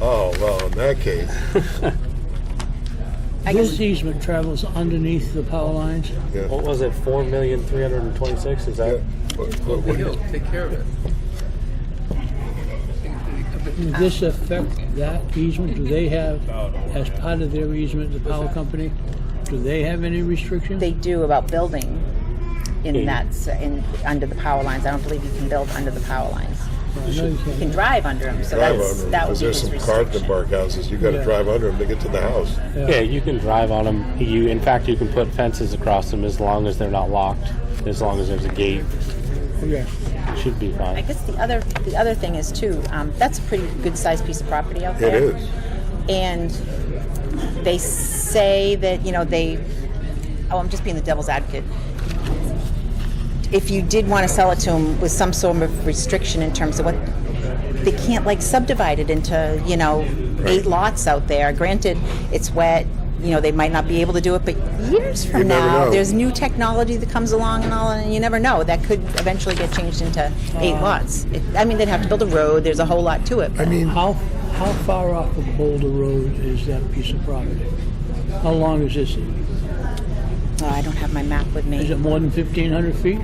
Oh, that case. I This guess easement travels underneath the power lines. Yeah. What was it? Four million three hundred and twenty-six. Is Yeah. that? What- what- Well, what- he'll take care of it. Would this Ah. affect that easement? Do they have, as part of their easement, the power company? Do they have any restrictions? they do about building in Okay. that s- in under the power lines. I don't believe you can build under the power lines. I know you You can can't. drive under them, so Drive that's under 'em, that would 'cause be there's his some restriction. carton bark houses. You got to Yeah. drive under them to get to the house. Yeah, you can drive on them. You, in fact, you can put fences across them as long as they're not locked. As long as there's a gate, Okay. it should be I fine. guess the other the other thing is too. Um, that's a pretty good sized piece of property out It there. is. and they say that you know they oh i'm just being the devil's advocate if you did want to sell it to them with some sort of restriction in terms of what they can't like subdivide it into you know eight lots out there granted it's wet you know they might not be able to do it but years from You never now know. there's new technology that comes along and all and you never know that could eventually get changed into eight lots it, i mean they'd have to build a road there's a whole lot to it I mean, How, how far off of Boulder Road is that piece of property? How long is this? Oh, i don't have my map with me Is it more than 1,500 feet?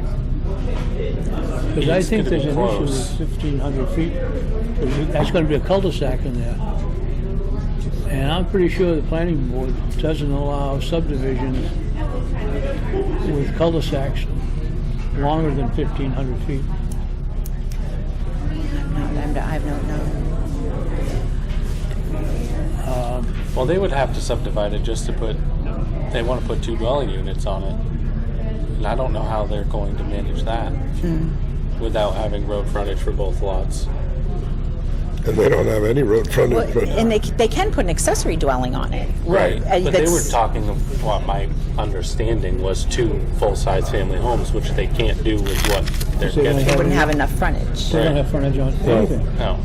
Because I It's think gonna there's be an issue close. with 1,500 feet. 'Cause you- That's going to be a cul-de-sac in there. And I'm pretty sure the planning board doesn't allow subdivisions with cul-de-sacs longer than 1,500 feet. I'm, I don't know. Well, they would have to subdivide it just to put. They want to put two dwelling units on it, and I don't know how they're going to manage that without having road frontage for both lots. and they don't have any road frontage. but- and they, they can put an accessory dwelling on it. Right, Uh, but they were that's- talking of what my understanding was two full-size family homes, which they can't do with what they're So they only getting. have- Wouldn't have enough frontage. They don't Right. have frontage on anything. No,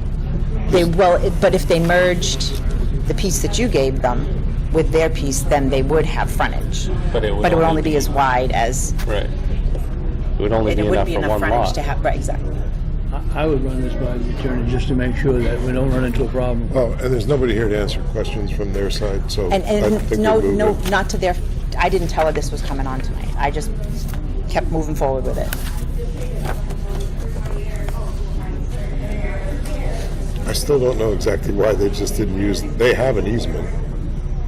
They well, it- but if they merged the piece that you gave them with their piece, then they would have frontage. but it would. But it would only be as wide as Right. It would only and it be enough wouldn't be for enough one frontage lot. to have. Right, exactly. I I would run this by the attorney just to make sure that we don't run into a problem. Oh, and there's nobody here to answer questions from their side, so And I think and we no, move no, it. not to their. I didn't tell her this was coming on tonight. I just kept moving forward with it. I still don't know exactly why they just didn't use. They have an easement.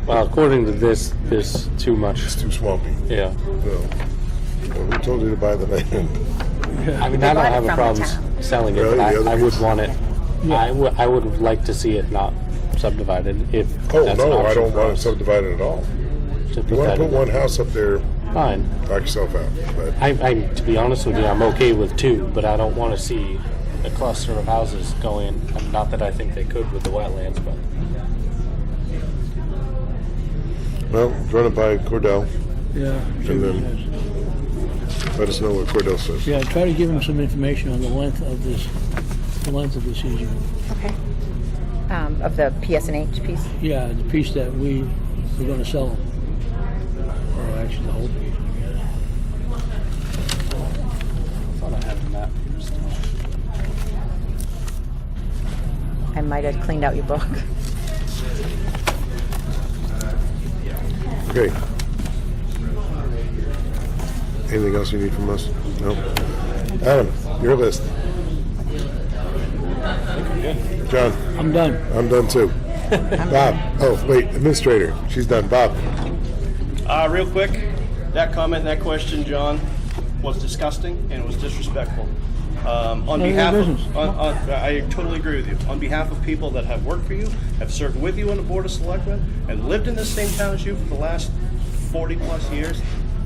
Well, according to this, this too much. It's too swampy. Yeah. So, well, who told you to buy the land? I mean, I bought don't it have a from the problem town. s- selling it, Really? but I, The other I would piece? want it. I would. I would like to see it not subdivided. If Oh that's an no, I option don't for want it us subdivided at all. to You want put to that put in. one house up there, Fine. knock yourself out. But I, I, to be honest with you, I'm okay with two, but I don't want to see a cluster of houses go in. Um, Not that I think they could with the wetlands, but well, run it by Cordell. Yeah. see And what he then- says. Let us know what Cordell says. Yeah, try to give him some information on the length of this, the length of this easement. Okay. Um, of the PSNH piece. Yeah, the piece that we were gonna sell him. Or actually, the whole piece. I thought I had a map here still. I might have cleaned out your book. Okay. Anything else you need from us? No. Adam, your list. John. I'm done. I'm done too. Bob. Oh, wait, administrator. She's done. Bob. Uh, real quick, that comment, that question, John, was disgusting and it was disrespectful. Um, on None of your behalf business. of, on, on, I totally agree with you. On behalf of people that have worked for you, have served with you on the board of selectmen, and lived in this same town as you for the last forty plus years,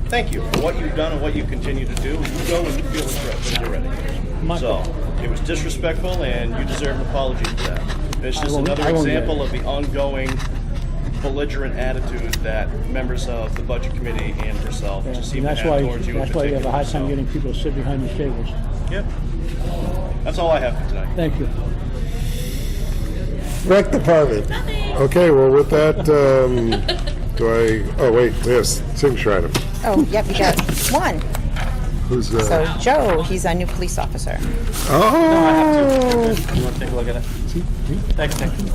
thank you for what you've done and what you continue to do. You go and you feel it's right when you're ready. Michael. So it was disrespectful, and you deserve an apology for that. It's I just won't- another I won't get it. example of the ongoing belligerent attitude that members of the budget committee and herself just seem And that's to have why, towards you in that's why you have a hard time particular. getting people to sit behind these tables. So, Yep. That's all I have for tonight. Thank you. Rec department. Okay, well, with that, um, do I, oh, wait, yes, signature item. Oh, yep, you got one. Who's, So uh, Joe, he's our new police officer. oh! You want to take a look at it? Thanks, Nick.